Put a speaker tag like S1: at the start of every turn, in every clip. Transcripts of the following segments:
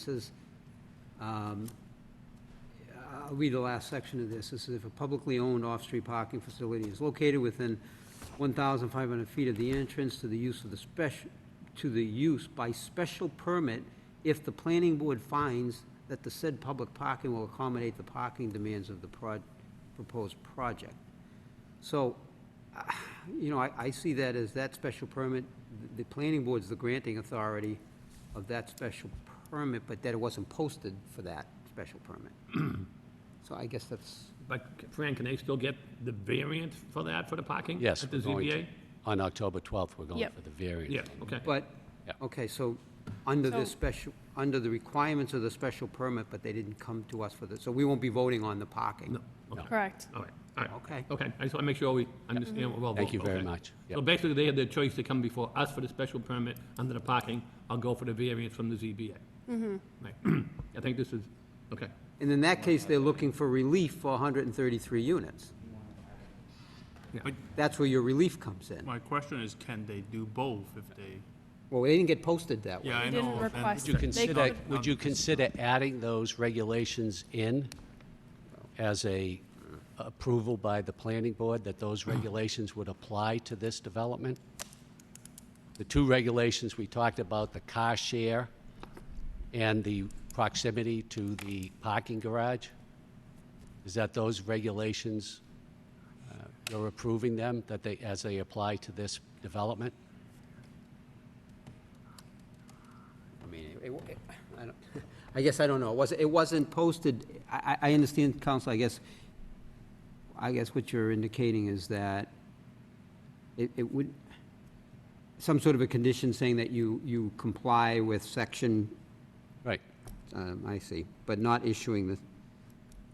S1: says, um, I'll read the last section of this. This is if a publicly owned off-street parking facility is located within 1,500 feet of the entrance to the use of the special, to the use by special permit if the planning board finds that the said public parking will accommodate the parking demands of the proj- proposed project. So, uh, you know, I, I see that as that special permit, the- the planning board's the granting authority of that special permit, but that it wasn't posted for that special permit. So I guess that's,
S2: But Fran, can they still get the variance for that, for the parking?
S3: Yes.
S2: At the
S3: we're going to-
S2: ZBA?
S3: On October 12th, we're going
S4: Yep.
S3: for the variance.
S2: Yeah, okay.
S1: but,
S3: Yeah.
S1: okay, so, under the
S4: So-
S1: special, under the requirements of the special permit, but they didn't come to us for this, so we won't be voting on the parking.
S2: No, okay,
S4: Correct.
S2: all right, all right.
S1: Okay.
S2: Okay, I just want to make sure we understand what we're
S3: Thank you
S2: voting,
S3: very
S2: okay.
S3: much.
S2: So
S3: Yep.
S2: basically, they had the choice to come before us for the special permit under the parking, or go for the variance from the ZBA. Mm-hmm. Right, I think this is, okay,
S1: And in that case, they're looking for relief for 133 units.
S2: Yeah.
S5: But-
S1: That's where your relief comes in.
S5: My question is, can they do both if they,
S1: Well, they didn't get posted that way.
S5: yeah, I
S4: They
S5: know.
S4: didn't
S5: and-
S4: request
S3: Would you
S4: They
S3: consider,
S4: could-
S3: would you consider adding those regulations in as a approval by the planning board, that those regulations would apply to this development? The two regulations we talked about, the car share and the proximity to the parking garage? Is that those regulations, uh, you're approving them, that they, as they apply to this development?
S1: I mean, it- it- I don't- I guess I don't know. It wasn't, it wasn't posted, I, I I understand, counsel, I guess, I guess what you're indicating is that it, it would, some sort of a condition saying that you, you comply with section,
S3: Right,
S1: um, I see, but not issuing the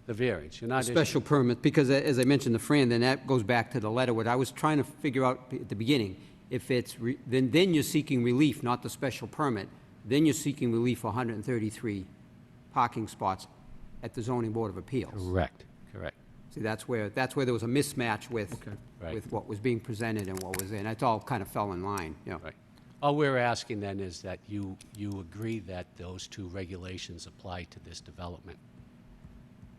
S3: the variance, you're not issuing...
S1: special permit, because a- as I mentioned to Fran, then that goes back to the letter, what I was trying to figure out at the beginning. If it's, re- then, then you're seeking relief, not the special permit, then you're seeking relief for 133 parking spots at the zoning board of appeals.
S3: Correct, correct.
S1: See, that's where, that's where there was a mismatch with,
S3: Right.
S1: with what was being presented and what was in, it all kind of fell in line, you know.
S3: Right. All we're asking then is that you, you agree that those two regulations apply to this development.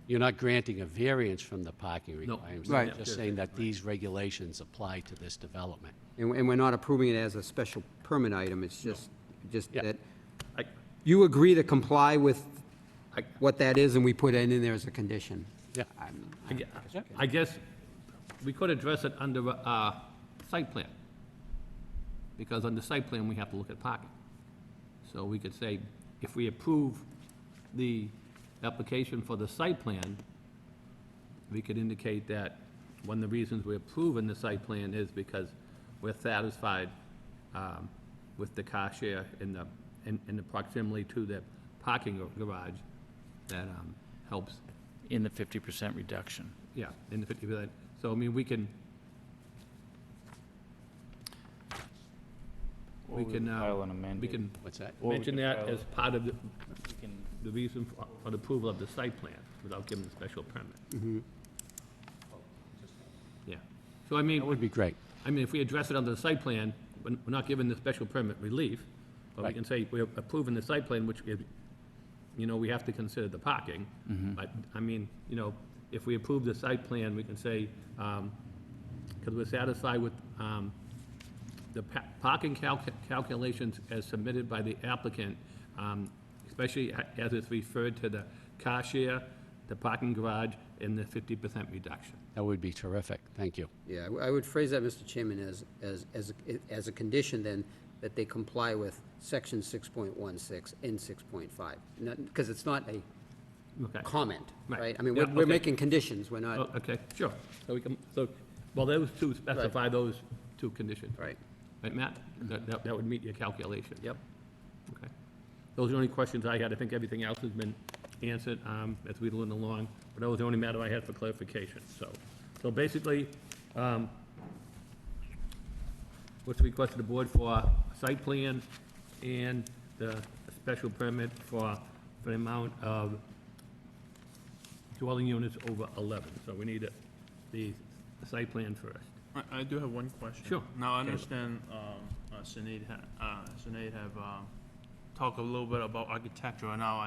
S3: You're not granting a variance from the parking requirements.
S1: Right.
S3: You're just saying that these regulations apply to this development.
S1: And, and we're not approving it as a special permit item, it's just, just
S3: Yeah.
S1: that,
S2: I,
S1: you agree to comply with
S2: I,
S1: what that is, and we put it in there as a condition.
S3: Yeah.
S1: I'm-
S2: I gue- I guess we could address it under, uh, site plan. Because under site plan, we have to look at parking. So we could say, if we approve the application for the site plan, we could indicate that one of the reasons we're approving the site plan is because we're satisfied um, with the car share in the, in in the proximity to the parking gar- garage that um, helps
S6: in the 50% reduction.
S2: yeah, in the fifty percent. So, I mean, we can, we can, uh,
S6: File an amendment.
S2: we can
S3: What's that?
S6: Or we
S2: mention
S6: could
S2: that
S6: file-
S2: as part of the,
S6: We can-
S2: the reason for for the approval of the site plan without giving the special permit. Yeah. So I
S3: That
S2: mean,
S3: would be great.
S2: I mean, if we address it under the site plan, we're we're not giving the special permit relief, but we
S3: Right.
S2: can say we're approving the site plan, which, if- you know, we have to consider the parking. But, I mean, you know, if we approve the site plan, we can say, because we're satisfied with um, the pa- parking calc- calculations as submitted by the applicant, um, especially a- as it's referred to the car share, the parking garage, and the 50% reduction.
S3: That would be terrific. Thank you.
S1: Yeah, I w- I would phrase that, Mr. Chairman, as, as, as, a- as a condition then, that they comply with section six point one six and six point five. because it's not a
S2: Okay.
S1: comment,
S2: Right.
S1: right? I mean, we're,
S2: Yeah,
S1: we're
S2: okay.
S1: making conditions, we're
S2: Oh,
S1: not,
S2: Okay, sure. So we can, so, well, those two specify those two conditions.
S1: right?
S2: Right, Matt? That, that- that would meet your calculation. Yep. Okay. Those are the only questions I had. I think everything else has been answered um, as we went along, but that was the only matter I had for clarification, so. So basically, um, what's requested the board for site plan and the special permit for, for the amount of dwelling units over 11. So we need a- the site plan first.
S5: I- I do have one question.
S2: Sure.
S5: Now, I
S2: Okay.
S5: understand um, uh, Sinead, ha- uh, Sinead have um, talk a little bit about architecture now.